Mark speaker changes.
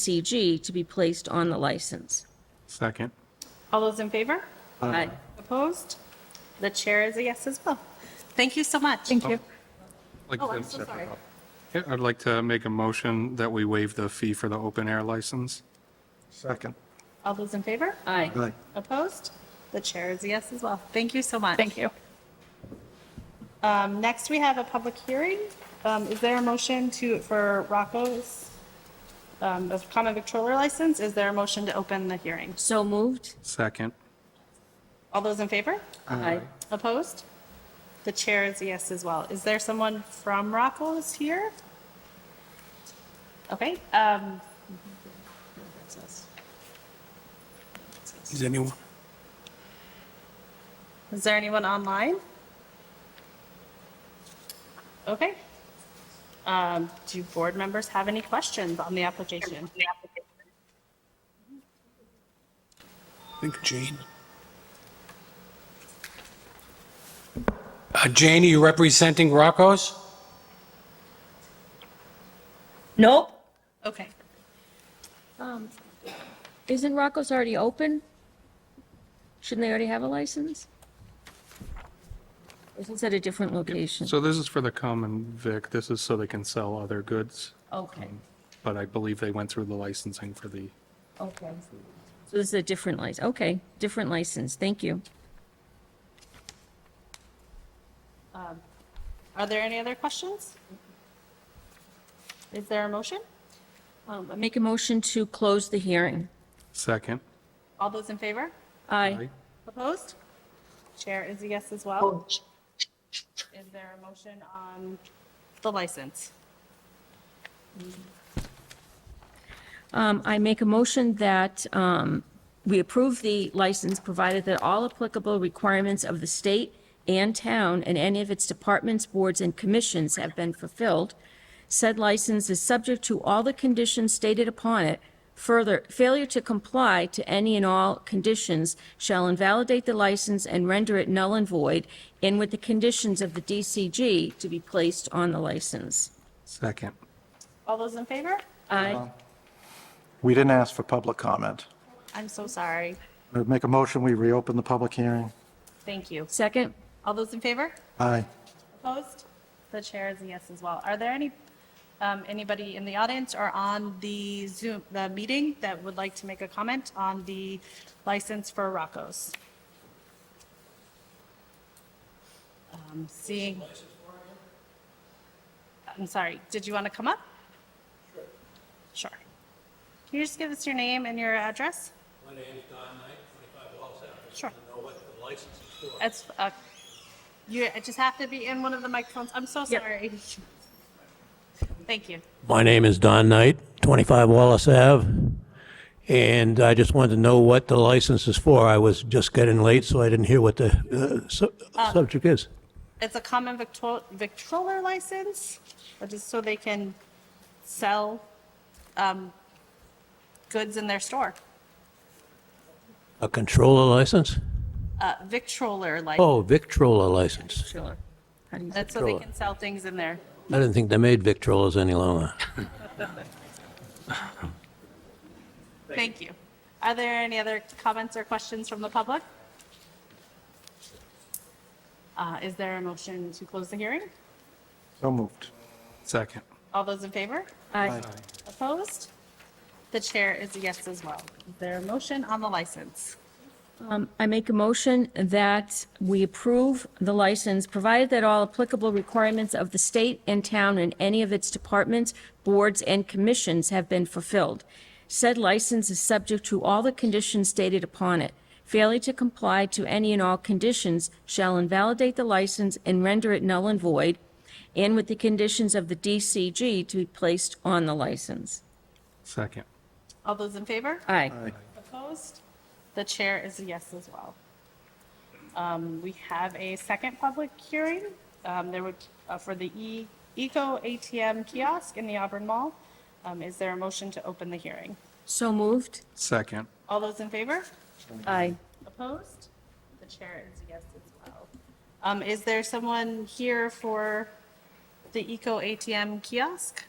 Speaker 1: DCG to be placed on the license.
Speaker 2: Second.
Speaker 3: All those in favor?
Speaker 1: Aye.
Speaker 3: Opposed? The chair is a yes as well. Thank you so much. Thank you.
Speaker 2: Like
Speaker 3: Oh, I'm
Speaker 2: to-
Speaker 3: so sorry.
Speaker 2: Yeah, I'd like to make a motion that we waive the fee for the open air license.
Speaker 4: Second.
Speaker 3: All those in favor?
Speaker 1: Aye.
Speaker 4: Aye.
Speaker 3: Opposed? The chair is a yes as well. Thank you so much.
Speaker 5: Thank you.
Speaker 3: Um, next, we have a public hearing. Um, is there a motion to, for Rocco's, um, of common victrola license? Is there a motion to open the hearing?
Speaker 1: So moved?
Speaker 2: Second.
Speaker 3: All those in favor?
Speaker 1: Aye.
Speaker 3: Opposed? The chair is a yes as well. Is there someone from Rocco's here? Okay, um.
Speaker 6: Is anyone?
Speaker 3: Is there anyone online? Okay. Um, do board members have any questions on the application?
Speaker 6: I think Jane. Uh, Jane, are you representing Rocco's?
Speaker 1: Nope.
Speaker 3: Okay.
Speaker 1: Isn't Rocco's already open? Shouldn't they already have a license? Or is it at a different location?
Speaker 2: So this is for the common vic. This is so they can sell other goods,
Speaker 1: Okay,
Speaker 2: but I believe they went through the licensing for the,
Speaker 1: okay. So this is a different license, okay, different license, thank you.
Speaker 3: Are there any other questions? Is there a motion?
Speaker 1: Um, I Make a motion to close the hearing.
Speaker 2: second.
Speaker 3: All those in favor?
Speaker 1: Aye.
Speaker 3: Opposed? Chair is a yes as well. Is there a motion on the license?
Speaker 1: Um, I make a motion that, um, we approve the license provided that all applicable requirements of the state and town and any of its departments, boards, and commissions have been fulfilled. Said license is subject to all the conditions stated upon it. Further, failure to comply to any and all conditions shall invalidate the license and render it null and void, and with the conditions of the DCG to be placed on the license.
Speaker 2: Second.
Speaker 3: All those in favor?
Speaker 1: Aye.
Speaker 4: We didn't ask for public comment.
Speaker 3: I'm so sorry.
Speaker 4: I Make a motion, we reopen the public hearing.
Speaker 3: Thank you.
Speaker 1: Second?
Speaker 3: All those in favor?
Speaker 4: Aye.
Speaker 3: Opposed? The chair is a yes as well. Are there any, um, anybody in the audience or on the Zoom, the meeting that would like to make a comment on the license for Rocco's? Um, Seeing. I'm sorry, did you want to come up? Sure. Can you just give us your name and your address?
Speaker 7: My name's Don Knight, 25 Wells Avenue.
Speaker 3: Sure.
Speaker 7: I know what the license is for.
Speaker 3: It's, uh, you just have to be in one of the microphones. I'm so
Speaker 1: Yep.
Speaker 3: sorry. Thank you.
Speaker 7: My name is Don Knight, 25 Wallace Ave, and I just wanted to know what the license is for. I was just getting late, so I didn't hear what the uh, su- subject is.
Speaker 3: It's a common victro- victrola license, which is so they can sell um, goods in their store.
Speaker 7: A controller license?
Speaker 3: Uh, Victroler license,
Speaker 7: Oh, Victrola license.
Speaker 1: Sure. How do you-
Speaker 3: that's so they
Speaker 7: Victrola.
Speaker 3: can sell things in there.
Speaker 7: I didn't think they made Victrolas any longer.
Speaker 3: Thank you. Are there any other comments or questions from the public? Uh, Is there a motion to close the hearing?
Speaker 4: So moved.
Speaker 2: Second.
Speaker 3: All those in favor?
Speaker 1: Aye.
Speaker 3: Opposed? The chair is a yes as well. Is there a motion on the license?
Speaker 1: Um, I make a motion that we approve the license, provided that all applicable requirements of the state and town and any of its departments, boards, and commissions have been fulfilled. Said license is subject to all the conditions stated upon it. Failure to comply to any and all conditions shall invalidate the license and render it null and void, and with the conditions of the DCG to be placed on the license.
Speaker 2: Second.
Speaker 3: All those in favor?
Speaker 1: Aye.
Speaker 3: Opposed? The chair is a yes as well. Um, We have a second public hearing. um, There would, uh, for the E- Eco ATM kiosk in the Auburn Mall. Um, Is there a motion to open the hearing?
Speaker 1: So moved?
Speaker 2: Second.
Speaker 3: All those in favor?
Speaker 1: Aye.
Speaker 3: Opposed? The chair is a yes as well. Um, Is there someone here for the Eco ATM kiosk?